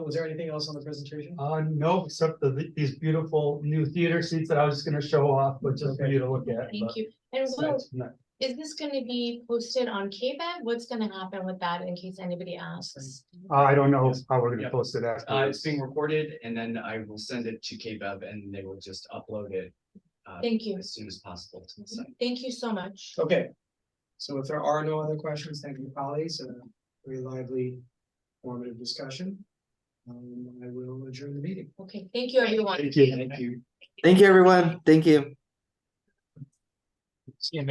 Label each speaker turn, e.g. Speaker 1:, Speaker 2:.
Speaker 1: Was there anything else on the presentation?
Speaker 2: Uh, no, except the, these beautiful new theater seats that I was just gonna show off, but just for you to look at.
Speaker 3: Thank
Speaker 2: but
Speaker 3: you. And Will,
Speaker 2: that's not-
Speaker 3: is this gonna be posted on KBAG? What's gonna happen with that in case anybody asks?
Speaker 2: Uh, I don't know how we're
Speaker 4: Yeah.
Speaker 2: gonna post it after.
Speaker 4: Uh, it's being recorded and then I will send it to KBEV and they will just upload it
Speaker 3: Thank you.
Speaker 4: as soon as possible to the site.
Speaker 3: Thank you so much.
Speaker 1: Okay. So if there are no other questions, thank you, colleagues, a very lively, formative discussion. Um, I will adjourn the meeting.
Speaker 3: Okay, thank you, everyone.
Speaker 2: Thank you.
Speaker 1: Thank you.
Speaker 5: Thank you, everyone. Thank you.